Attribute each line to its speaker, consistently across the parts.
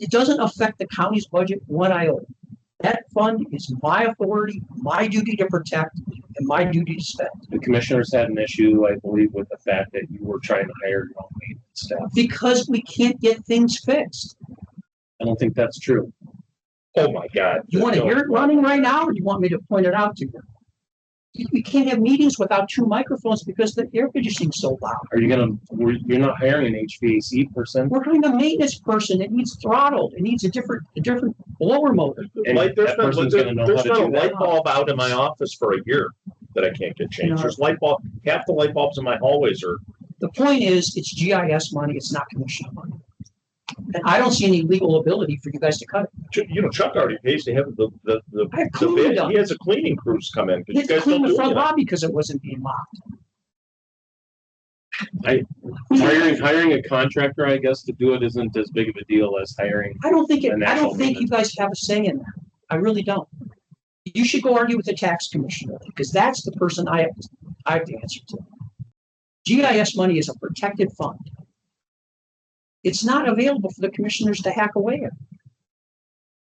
Speaker 1: It doesn't affect the county's budget one iota. That fund is my authority, my duty to protect, and my duty to spend.
Speaker 2: The commissioners had an issue, I believe, with the fact that you were trying to hire your own maintenance staff.
Speaker 1: Because we can't get things fixed.
Speaker 2: I don't think that's true. Oh, my God.
Speaker 1: You want to hear it running right now, or you want me to point it out to you? You- We can't have meetings without two microphones because the air conditioning's so loud.
Speaker 2: Are you gonna, we're- you're not hiring an HVAC person?
Speaker 1: We're hiring a maintenance person. It needs throttled. It needs a different, a different blower motor.
Speaker 2: And
Speaker 3: Light, there's
Speaker 2: that
Speaker 3: been,
Speaker 2: person's gonna know
Speaker 3: there's
Speaker 2: how to
Speaker 3: been a
Speaker 2: do that.
Speaker 3: light bulb out in my office for a year that I can't
Speaker 1: No.
Speaker 3: get changed. There's light bulb, half the light bulbs in my hallways are,
Speaker 1: The point is, it's GIS money, it's not commission money. And I don't see any legal ability for you guys to cut it.
Speaker 3: Ch- you know, Chuck already pays to have the, the, the.
Speaker 1: I have
Speaker 3: the
Speaker 1: cleaned
Speaker 3: bid.
Speaker 1: up.
Speaker 3: He has a cleaning crews come in.
Speaker 1: You
Speaker 3: 'cause you
Speaker 1: had to
Speaker 3: guys don't
Speaker 1: clean the
Speaker 3: do
Speaker 1: front
Speaker 3: anything.
Speaker 1: lobby because it wasn't being locked.
Speaker 2: Hiring, hiring a contractor, I guess, to do it isn't as big of a deal as hiring.
Speaker 1: I don't think, it.
Speaker 2: And
Speaker 1: I
Speaker 2: that's
Speaker 1: don't
Speaker 2: all
Speaker 1: think you guys have a say in that. I really don't. You should go argue with the tax commissioner because that's the person I, I have the answer to. GIS money is a protected fund. It's not available for the commissioners to hack away at.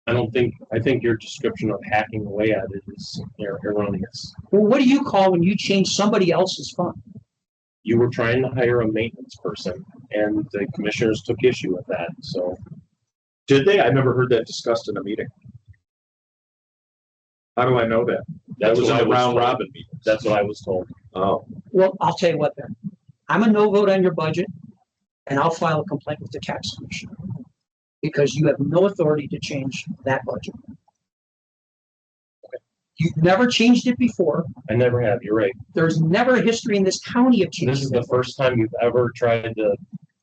Speaker 2: I don't think, I think your description of hacking away at it is er- erroneous.
Speaker 1: Well, what do you call when you change somebody else's fund?
Speaker 2: You were trying to hire a maintenance person and the commissioners took issue with that, so.
Speaker 3: Did they? I never heard that discussed in a meeting. How do I know that? That
Speaker 2: that's
Speaker 3: was
Speaker 2: what
Speaker 3: in
Speaker 2: I
Speaker 3: the round
Speaker 2: told.
Speaker 3: robin meeting.
Speaker 2: That's what I was told.
Speaker 3: Oh,
Speaker 1: Well, I'll tell you what then. I'm a no vote on your budget and I'll file a complaint with the tax commissioner. Because you have no authority to change that budget. You've never changed it before.
Speaker 2: I never have, you're right.
Speaker 1: There's never a history in this county of
Speaker 2: This
Speaker 1: changing
Speaker 2: is the
Speaker 1: it.
Speaker 2: first time you've ever tried to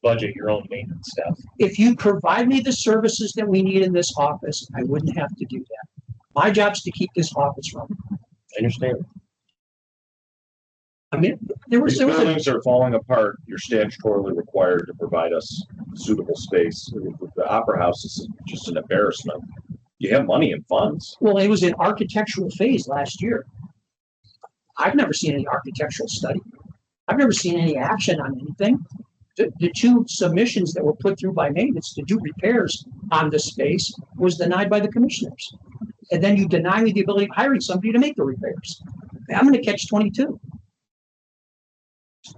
Speaker 2: budget your own maintenance staff.
Speaker 1: If you provide me the services that we need in this office, I wouldn't have to do that. My job's to keep this office running.
Speaker 2: I understand.
Speaker 1: I mean, there was,
Speaker 3: these
Speaker 1: there was a
Speaker 3: buildings are falling apart. You're statutorily required to provide us suitable space. The Opera House is just an embarrassment. You have money and funds.
Speaker 1: Well, it was in architectural phase last year. I've never seen any architectural study. I've never seen any action on anything. The, the two submissions that were put through by maintenance to do repairs on the space was denied by the commissioners. And then you deny me the ability of hiring somebody to make the repairs. I'm gonna catch twenty-two.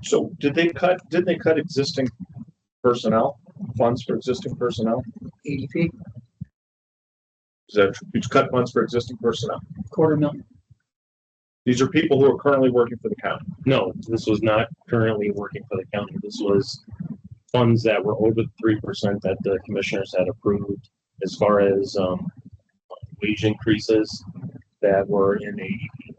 Speaker 3: So did they cut, didn't they cut existing personnel, funds for existing personnel?
Speaker 1: ADP,
Speaker 3: Is that, it's cut funds for existing personnel?
Speaker 1: quarter million.
Speaker 3: These are people who are currently working for the county.
Speaker 2: No, this was not currently working for the county. This was funds that were over the three percent that the commissioners had approved as far as um wage increases that were in AEP.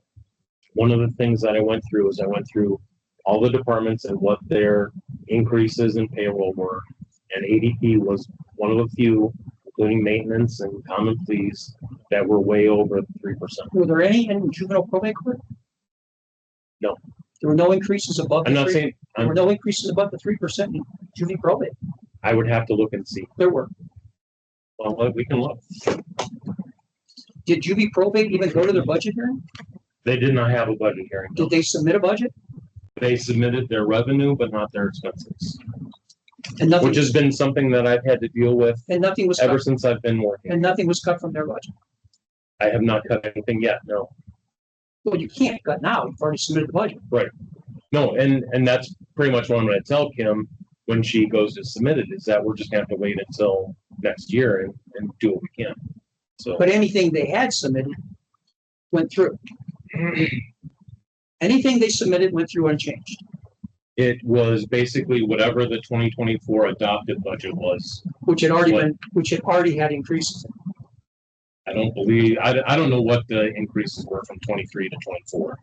Speaker 2: One of the things that I went through is I went through all the departments and what their increases in payroll were. And ADP was one of the few, including maintenance and common pleas, that were way over three percent.
Speaker 1: Were there any in juvenile probate court?
Speaker 2: No.
Speaker 1: There were no increases above. the
Speaker 2: I'm not
Speaker 1: three-
Speaker 2: saying,
Speaker 1: There
Speaker 2: I'm-
Speaker 1: were no increases above the three percent in juvenile probate.
Speaker 2: I would have to look and see.
Speaker 1: There were.
Speaker 2: Well, we can look.
Speaker 1: Did Juvie probate even go to their budget hearing?
Speaker 2: They did not have a budget hearing.
Speaker 1: Did they submit a budget?
Speaker 2: They submitted their revenue, but not their expenses,
Speaker 1: And nothing,
Speaker 2: which has been something that I've had to deal with
Speaker 1: and nothing was
Speaker 2: ever
Speaker 1: cut,
Speaker 2: since I've been working.
Speaker 1: and nothing was cut from their budget.
Speaker 2: I have not cut anything yet, no.
Speaker 1: Well, you can't cut now. You've already submitted the budget.
Speaker 2: No, and, and that's pretty much what I'm gonna tell Kim when she goes to submit it, is that we're just gonna have to wait until next year and, and do what we can. So,
Speaker 1: But anything they had submitted went through. Anything they submitted went through unchanged.
Speaker 2: it was basically whatever the twenty twenty-four adopted budget was.
Speaker 1: Which had already
Speaker 2: What?
Speaker 1: been, which had already had increases.
Speaker 2: I don't believe, I, I don't know what the increases were from twenty-three to twenty-four.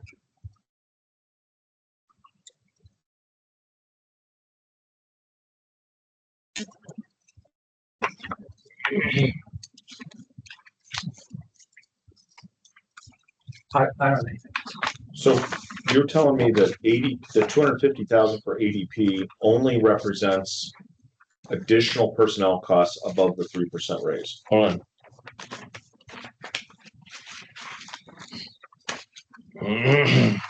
Speaker 1: I, I don't know.
Speaker 3: So you're telling me that eighty, the two hundred fifty thousand for ADP only represents additional personnel costs above the three percent raise?
Speaker 2: Hold on. I